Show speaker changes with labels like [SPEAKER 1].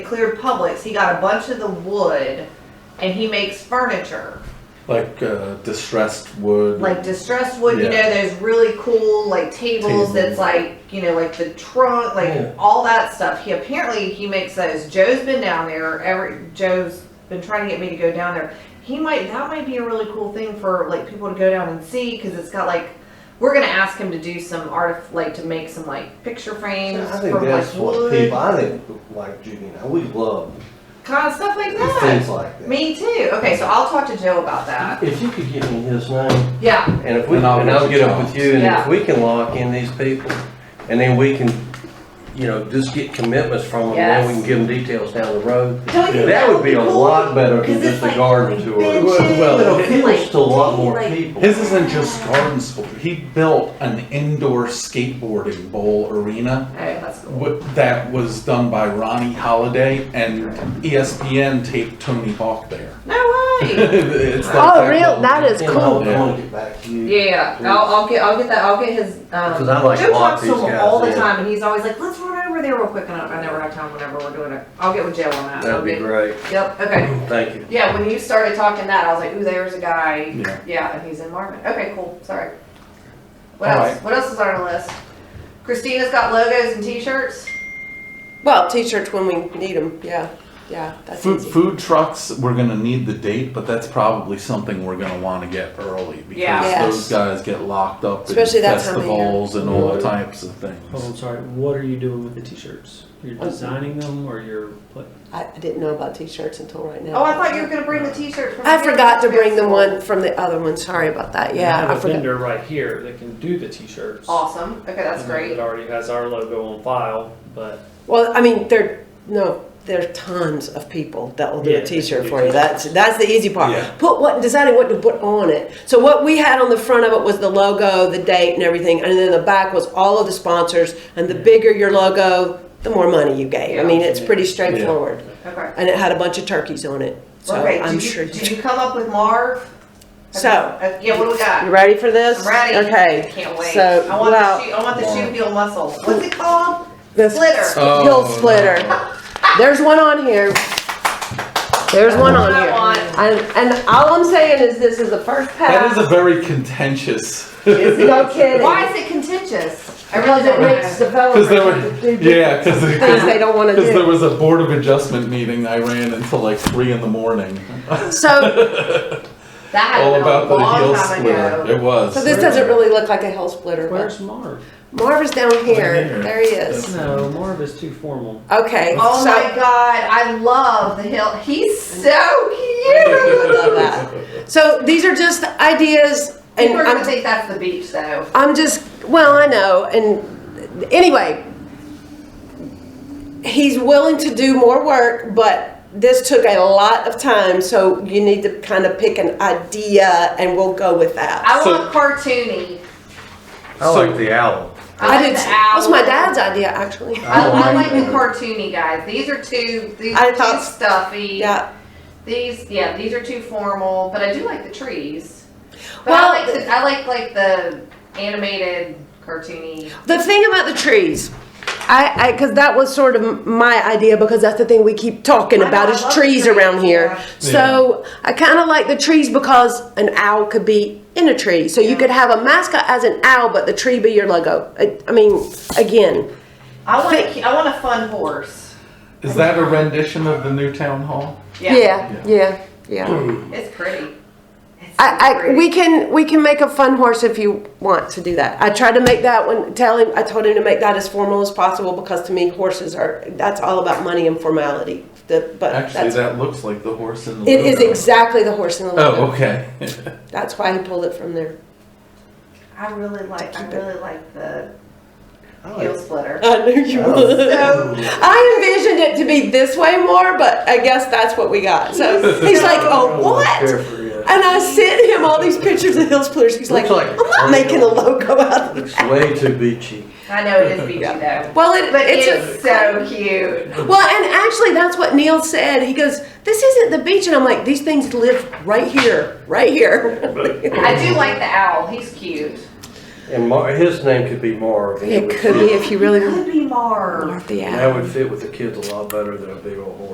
[SPEAKER 1] cleared Publix, he got a bunch of the wood and he makes furniture.
[SPEAKER 2] Like uh, distressed wood.
[SPEAKER 1] Like distressed wood, you
[SPEAKER 2] Yeah.
[SPEAKER 1] know, there's really cool like tables
[SPEAKER 2] Tables.
[SPEAKER 1] that's like, you know, like the trunk, like
[SPEAKER 2] Yeah.
[SPEAKER 1] all that stuff. He apparently he makes those. Joe's been down there, every Joe's been trying to get me to go down there. He might that might be a really cool thing for like people to go down and see because it's got like we're gonna ask him to do some art like to make some like picture frames
[SPEAKER 3] I think
[SPEAKER 1] from
[SPEAKER 3] that's
[SPEAKER 1] like
[SPEAKER 3] what
[SPEAKER 1] wood.
[SPEAKER 3] people, I think, like Judy and I, we love
[SPEAKER 1] kind of stuff like
[SPEAKER 3] things
[SPEAKER 1] that.
[SPEAKER 3] like that.
[SPEAKER 1] Me too. Okay, so I'll talk to Joe about that.
[SPEAKER 3] If you could give me his name,
[SPEAKER 1] Yeah,
[SPEAKER 3] and if we,
[SPEAKER 2] And
[SPEAKER 3] and
[SPEAKER 2] I'll
[SPEAKER 3] I'll
[SPEAKER 2] get
[SPEAKER 3] get
[SPEAKER 2] you
[SPEAKER 3] up with
[SPEAKER 2] John's.
[SPEAKER 3] you, and
[SPEAKER 1] Yeah.
[SPEAKER 3] if we can lock in these people, and then we can, you know, just get commitments from them, and then we
[SPEAKER 1] Yes.
[SPEAKER 3] can give them details down the road.
[SPEAKER 1] don't you think
[SPEAKER 3] That would be a
[SPEAKER 1] cool?
[SPEAKER 3] lot better than
[SPEAKER 1] 'Cause it's
[SPEAKER 3] just a
[SPEAKER 1] like
[SPEAKER 3] garden tour.
[SPEAKER 1] benches
[SPEAKER 2] Well,
[SPEAKER 3] But it
[SPEAKER 1] and,
[SPEAKER 3] appeals
[SPEAKER 1] like,
[SPEAKER 3] to a lot more
[SPEAKER 1] like-
[SPEAKER 3] people.
[SPEAKER 2] His isn't just garden sport. He built an indoor skateboarding bowl arena
[SPEAKER 1] Oh, that's cool.
[SPEAKER 2] wi- that was done by Ronnie Holiday, and E ESPN taped Tony Hawk there.
[SPEAKER 1] No way.
[SPEAKER 2] it's like
[SPEAKER 4] Oh,
[SPEAKER 2] that
[SPEAKER 4] real?
[SPEAKER 2] level.
[SPEAKER 4] That is
[SPEAKER 3] You know, I
[SPEAKER 4] cool.
[SPEAKER 3] wanna- I wanna get back to you.
[SPEAKER 1] Yeah, yeah. I'll, I'll get I'll get that I'll get his. Um,
[SPEAKER 3] 'Cause I like
[SPEAKER 1] Joe
[SPEAKER 3] lock
[SPEAKER 1] talks to
[SPEAKER 3] these
[SPEAKER 1] him
[SPEAKER 3] guys
[SPEAKER 1] all the
[SPEAKER 3] in.
[SPEAKER 1] time, and he's always like, "Let's run over there real quick," and I I never have time whenever we're doing it. I'll get with Joe on that.
[SPEAKER 3] That'd be
[SPEAKER 1] Okay.
[SPEAKER 3] great,
[SPEAKER 1] Yep. Okay.
[SPEAKER 3] thank you.
[SPEAKER 1] Yeah. When you started talking that, I was like, "Ooh, there's a guy."
[SPEAKER 2] Yeah.
[SPEAKER 1] Yeah, and he's in Marvin. Okay, cool. Sorry. What
[SPEAKER 2] All
[SPEAKER 1] else?
[SPEAKER 2] right.
[SPEAKER 1] What else is on our list? Christina's got logos and T-shirts.
[SPEAKER 4] Well, t-shirts when we need them. Yeah, yeah, that's
[SPEAKER 2] Food,
[SPEAKER 4] easy.
[SPEAKER 2] food trucks, we're gonna need the date, but that's probably something we're gonna wanna get early
[SPEAKER 1] Yeah.
[SPEAKER 2] because
[SPEAKER 4] Yes.
[SPEAKER 2] those guys get locked up in
[SPEAKER 4] Especially that time of year.
[SPEAKER 2] festivals and all
[SPEAKER 5] Mhm.
[SPEAKER 2] types of
[SPEAKER 5] Oh, I'm
[SPEAKER 2] things.
[SPEAKER 5] sorry. What are you doing with the t-shirts? You're designing them, or you're what?
[SPEAKER 4] I, I didn't know about t-shirts until right now.
[SPEAKER 1] Oh, I thought you were gonna bring the T-shirts. From
[SPEAKER 4] I forgot to bring the
[SPEAKER 1] Festival.
[SPEAKER 4] one from the other one. Sorry about that. Yeah,
[SPEAKER 5] I
[SPEAKER 4] I
[SPEAKER 5] have a
[SPEAKER 4] forgot.
[SPEAKER 5] vendor right here that can do the t-shirts.
[SPEAKER 1] Awesome. Okay, Oh, that's
[SPEAKER 5] And then
[SPEAKER 1] great.
[SPEAKER 5] It already has our logo on file, but
[SPEAKER 4] Well, I mean, there no, there are tons of people that will do
[SPEAKER 5] Yeah,
[SPEAKER 4] a T-shirt
[SPEAKER 5] they
[SPEAKER 4] for
[SPEAKER 5] do.
[SPEAKER 4] you. That's that's the easy part.
[SPEAKER 2] Yeah.
[SPEAKER 4] Put what deciding what to put on it. So what we had on the front of it was the logo, the date, and everything, and then the back was all of the sponsors. And the bigger your logo, the more money you gave. I mean, it's pretty straightforward.
[SPEAKER 1] Okay.
[SPEAKER 4] And it had a bunch of turkeys on it. So
[SPEAKER 1] okay. Did
[SPEAKER 4] I'm
[SPEAKER 1] you,
[SPEAKER 4] sure.
[SPEAKER 1] Did you come up with Marv?
[SPEAKER 4] So-
[SPEAKER 1] Uh, yeah. What do we got?
[SPEAKER 4] You ready for this?
[SPEAKER 1] I'm ready. I
[SPEAKER 4] Okay.
[SPEAKER 1] can't wait.
[SPEAKER 4] So
[SPEAKER 1] I want
[SPEAKER 4] well,
[SPEAKER 1] the shoe, I want the shoe heel muscle. What's it called?
[SPEAKER 4] the
[SPEAKER 1] Splitter.
[SPEAKER 2] Oh,
[SPEAKER 4] Heel splitter.
[SPEAKER 2] no.
[SPEAKER 4] There's one on here. There's one on
[SPEAKER 1] That's what I
[SPEAKER 4] here.
[SPEAKER 1] want.
[SPEAKER 4] And, and all I'm saying is this is the first
[SPEAKER 2] That
[SPEAKER 4] pass.
[SPEAKER 2] is a very contentious.
[SPEAKER 4] No kidding.
[SPEAKER 1] Why is it contentious? I really
[SPEAKER 4] Because it
[SPEAKER 1] don't
[SPEAKER 4] makes
[SPEAKER 1] know.
[SPEAKER 2] Cause
[SPEAKER 4] developers
[SPEAKER 2] there were,
[SPEAKER 4] have to do
[SPEAKER 2] yeah, cause,
[SPEAKER 4] things they
[SPEAKER 2] cause,
[SPEAKER 4] don't wanna
[SPEAKER 2] 'cause there
[SPEAKER 4] do.
[SPEAKER 2] was a board of adjustment meeting I ran until like three in the morning.
[SPEAKER 4] So,
[SPEAKER 1] That
[SPEAKER 2] All
[SPEAKER 1] happened
[SPEAKER 2] about
[SPEAKER 1] a
[SPEAKER 2] the heel
[SPEAKER 1] long time
[SPEAKER 2] splitter. It
[SPEAKER 1] ago.
[SPEAKER 2] was.
[SPEAKER 4] so this doesn't really look like a hill splitter, but
[SPEAKER 5] where's Marv?
[SPEAKER 4] Marv is down
[SPEAKER 2] Right here.
[SPEAKER 4] here. There he is.
[SPEAKER 5] No, Marv is too formal.
[SPEAKER 4] Okay.
[SPEAKER 1] Oh
[SPEAKER 4] so-
[SPEAKER 1] my god, I love the heel. He's so cute.
[SPEAKER 4] love that. So these are just ideas and
[SPEAKER 1] People are gonna
[SPEAKER 4] I'm,
[SPEAKER 1] think that's the beach though.
[SPEAKER 4] I'm just, well, I know. And anyway, he's willing to do more work, but this took a lot of time. So you need to kind of pick an idea and we'll go with that.
[SPEAKER 1] I
[SPEAKER 2] So-
[SPEAKER 1] want cartoony.
[SPEAKER 3] I like the owl.
[SPEAKER 1] I like
[SPEAKER 4] did.
[SPEAKER 1] the owl.
[SPEAKER 4] That was my dad's idea, actually.
[SPEAKER 1] I,
[SPEAKER 2] Oh
[SPEAKER 1] I
[SPEAKER 3] I
[SPEAKER 1] like
[SPEAKER 3] like
[SPEAKER 1] the
[SPEAKER 3] that.
[SPEAKER 1] cartoony guys. These are too. These
[SPEAKER 4] I
[SPEAKER 1] are too
[SPEAKER 4] thought-
[SPEAKER 1] stuffy.
[SPEAKER 4] Yeah.
[SPEAKER 1] These, yeah, these are too formal. But I do like the trees. But
[SPEAKER 4] Well,
[SPEAKER 1] I like the, I like like the animated cartoony.
[SPEAKER 4] The thing about the trees, I, I, because that was sort of my idea because that's the thing we keep talking
[SPEAKER 1] I know,
[SPEAKER 4] about
[SPEAKER 1] I
[SPEAKER 4] is
[SPEAKER 1] love
[SPEAKER 4] trees
[SPEAKER 1] trees,
[SPEAKER 4] around here.
[SPEAKER 1] yeah.
[SPEAKER 4] So I kind of like the trees because an owl could be in a tree. So you could have a mascot as an owl, but the tree be your logo. I, I mean, again,
[SPEAKER 1] I want
[SPEAKER 4] Think-
[SPEAKER 1] a, I want a fun horse.
[SPEAKER 2] Is that a rendition of the new town hall?
[SPEAKER 1] Yeah,
[SPEAKER 4] yeah, yeah, yeah.
[SPEAKER 1] it's pretty. It's so
[SPEAKER 4] I, I,
[SPEAKER 1] pretty.
[SPEAKER 4] we can, we can make a fun horse if you want to do that. I tried to make that one, tell him, I told him to make that as formal as possible because to me horses are, that's all about money and formality. The, but
[SPEAKER 2] Actually,
[SPEAKER 4] that's, it
[SPEAKER 2] that looks like the horse in the.
[SPEAKER 4] is
[SPEAKER 2] logo.
[SPEAKER 4] exactly the horse in the
[SPEAKER 2] Oh,
[SPEAKER 4] logo.
[SPEAKER 2] okay.
[SPEAKER 4] That's why he pulled it from there.
[SPEAKER 1] I really like. I
[SPEAKER 4] Keep it.
[SPEAKER 1] really like the
[SPEAKER 3] I
[SPEAKER 1] heel
[SPEAKER 3] like-
[SPEAKER 1] splitter.
[SPEAKER 4] I knew you
[SPEAKER 3] Oh.
[SPEAKER 4] would. I envisioned it to be this way more, but I guess that's what we got. So he's like, oh, what? And I sent him all these pictures of hill splitters. He's like,
[SPEAKER 3] Looks like-
[SPEAKER 4] I'm not making a logo out of it.
[SPEAKER 3] It's way too beachy.
[SPEAKER 1] I know it is beachy though,
[SPEAKER 4] Well, it,
[SPEAKER 1] but
[SPEAKER 4] it's
[SPEAKER 1] it's,
[SPEAKER 4] a,
[SPEAKER 1] so cute.
[SPEAKER 4] Well, and actually, that's what Neil said. He goes, "This isn't the beach," and I'm like, "These things live right here, right here."
[SPEAKER 1] I do like the owl. He's cute.
[SPEAKER 3] And Mar, his name could be Marv. and
[SPEAKER 4] It
[SPEAKER 3] would
[SPEAKER 4] could be
[SPEAKER 3] fit-
[SPEAKER 4] if you really
[SPEAKER 1] Could be Marv.
[SPEAKER 4] want the
[SPEAKER 3] That
[SPEAKER 4] app.
[SPEAKER 3] would fit with the kids a lot better than a big old horse.